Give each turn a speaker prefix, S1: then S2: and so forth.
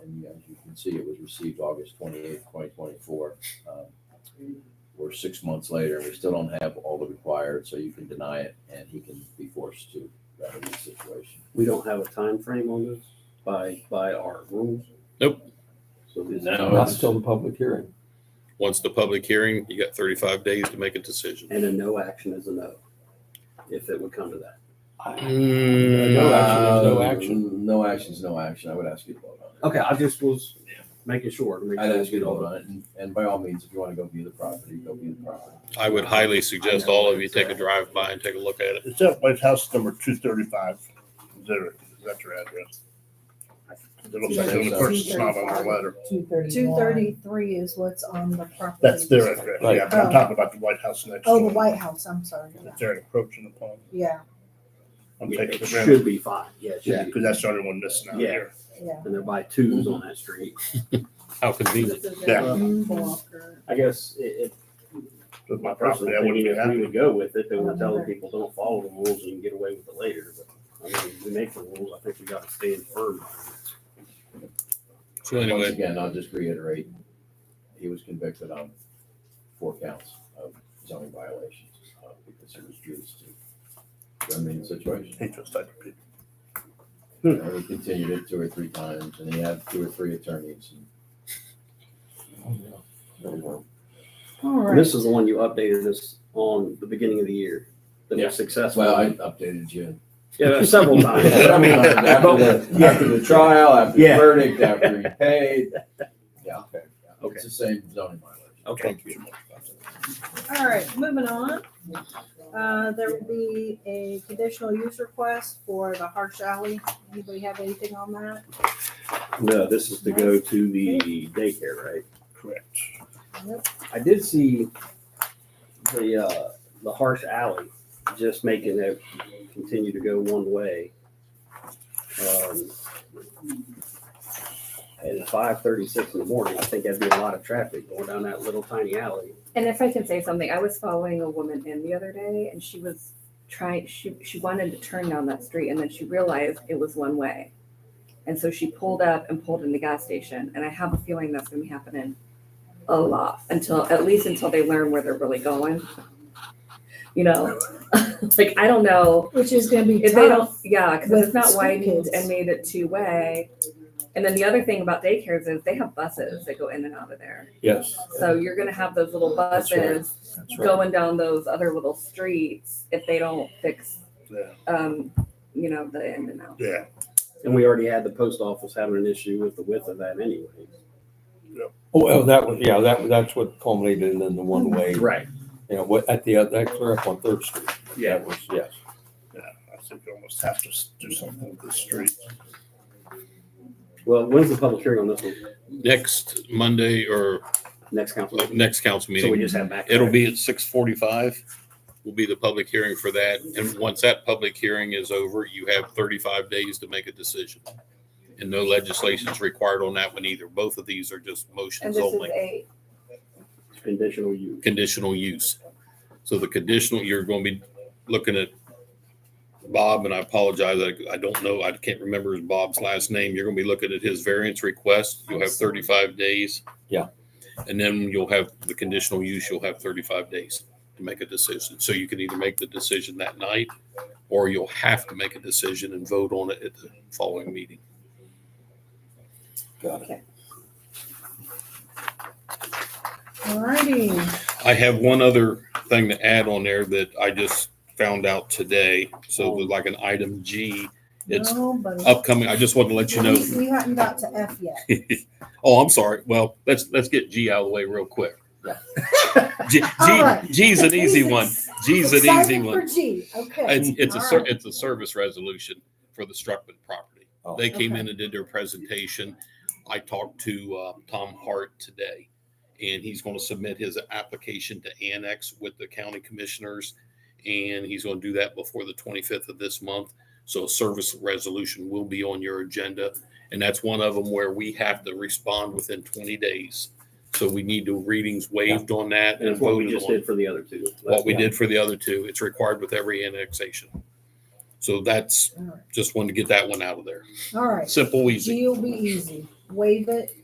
S1: As you can see, it was received August twenty-eighth, twenty twenty-four. Um, We're six months later, we still don't have all the required, so you can deny it and he can be forced to remedy the situation.
S2: We don't have a time frame on this by, by our rules.
S3: Nope.
S2: So this.
S3: No,
S4: Not until the public hearing.
S3: once the public hearing, you got thirty-five days to make a decision.
S2: And a no action is a no, if it would come to that.
S4: No action is no
S1: Uh,
S4: action.
S1: No action is no action. I would ask you to vote on it.
S2: Okay, I just was making sure. to make
S1: I'd
S2: sure
S1: ask you
S2: we
S1: to vote
S2: all-
S1: on it, and- and by all means, if you want to go view the property, go view the property.
S3: I would highly suggest all of you take a drive by and take a look at it.
S5: It's that White House number two thirty-five. Is there, is that your address? It looks like the only person's not on our letter.
S6: Two thirty.
S7: Two thirty-three is what's on the property.
S5: That's their address. Yeah, but I'm
S7: Right.
S5: talking about the White House next
S7: Oh, the
S5: door.
S7: White House, I'm sorry. yeah.
S5: If they're encroaching upon,
S7: Yeah,
S5: I'm taking
S2: It
S5: the rent.
S2: should be five, yeah, it should be,
S5: Because that's the only one missing out
S2: Yeah.
S5: here.
S7: yeah.
S2: and they're by twos on that street.
S3: How convenient.
S5: Yeah.
S2: Uh,
S7: Mhm.
S2: I guess it,
S5: With my property,
S2: personally,
S5: I wouldn't be
S2: if we
S5: happy.
S2: would go with it, then we're telling people don't follow the rules and you can get away with it later, but I mean, we make the rules, I think we gotta stand firm.
S3: So
S1: Once
S3: anyway,
S1: again, I'll just reiterate, he was convicted on four counts of zoning violations uh, because he refused to remedy the situation.
S5: Hate those type of people.
S1: And we continued it two or three times, and he had two or three attorneys. and- There we go.
S7: All
S2: And
S7: right,
S2: This is the one you updated us on the beginning of the year, that
S1: Yeah.
S2: was successful.
S1: Well, I updated you.
S2: Yeah, several times.
S1: I mean, After the after the trial, after the
S2: Yeah.
S1: verdict, after he paid. Yeah, okay. yeah.
S2: Okay.
S1: It's the same zoning violation.
S2: Okay.
S3: thank you.
S7: all right, moving on. Uh, there will be a conditional use request for the Harsh Alley. Anybody have anything on that?
S2: No, this is to go to the daycare, right?
S5: Correct.
S7: Nope.
S2: I did see the, uh, the harsh alley, just making it continue to go one way. Um, And five thirty-six in the morning, I think that'd be a lot of traffic going down that little tiny alley.
S8: And if I can say something, I was following a woman in the other day and she was trying, she, she wanted to turn down that street and then she realized it was one way. And so she pulled up and pulled in the gas station. And I have a feeling that's gonna be happening a lot until, at least until they learn where they're really going. You know, like, I don't know
S7: Which is gonna be
S8: if they don't,
S7: tough.
S8: yeah, cause if
S7: with
S8: it's not
S7: school
S8: widened
S7: kids.
S8: and made it two-way. And then the other thing about daycares is they have buses that go in and out of there.
S4: Yes,
S8: So you're gonna have those little
S4: That's right.
S8: buses
S4: that's right.
S8: going down those other little streets if they don't fix,
S5: Yeah,
S8: um, you know, the in and out.
S5: yeah.
S2: And we already had the post office having an issue with the width of that anyway.
S4: Oh, well, that was, yeah, that, that's what culminated in the one way, you
S2: Right.
S4: know, what, at the, other- that clear up on Third Street.
S5: Yeah.
S4: That was, yes.
S5: I think you almost have to s- do something with the street.
S2: Well, when's the public hearing on this one?
S3: Next Monday or
S2: Next council? meeting?
S3: next council
S2: So we
S3: meeting,
S2: just have back.
S3: it'll be at six forty-five. Will be the public hearing for that. And once that public hearing is over, you have thirty-five days to make a decision. And no legislation is required on that one either. Both of these are just
S8: And
S3: motions
S8: this is
S3: only,
S8: a,
S2: Conditional use.
S3: conditional use. So the conditional, you're gonna be looking at Bob, and I apologize, I, I don't know, I can't remember his Bob's last name. You're gonna be looking at his variance request. You'll have thirty-five days.
S4: Yeah.
S3: And then you'll have the conditional use, you'll have thirty-five days to make a decision. So you can either make the decision that night or you'll have to make a decision and vote on it at the following meeting.
S4: Got it.
S7: All righty.
S3: I have one other thing to add on there that I just found out today.
S7: Oh.
S3: So there's like an item G, it's
S7: Nobody-
S3: upcoming. I just wanted to let you know.
S7: We we haven't got to F yet.
S3: Oh, I'm sorry. Well, let's, let's get G out of the way real quick. G,
S7: All
S3: G,
S7: right.
S3: G's an easy
S7: He's
S3: one.
S7: ex-
S3: G's an easy
S7: excited For
S3: one.
S7: G, okay.
S3: It's, it's a,
S7: All
S3: ser-
S7: right.
S3: it's a service resolution for the Struckman property.
S4: Oh.
S3: They came
S7: Okay.
S3: in and did their presentation. I talked to, uh, Tom Hart today. And he's gonna submit his application to annex with the county commissioners. And he's gonna do that before the twenty-fifth of this month. So a service resolution will be on your agenda. And that's one of them where we have to respond within twenty days. So we need the readings waived on that
S2: And
S3: and
S2: that's what we
S3: voted
S2: just
S3: on
S2: did for the other two.
S3: what we did for the other two. It's required with every annexation. So that's,
S7: All right.
S3: just wanted to get that one out of there.
S7: All right,
S3: Simple, easy.
S7: G will be easy. waive it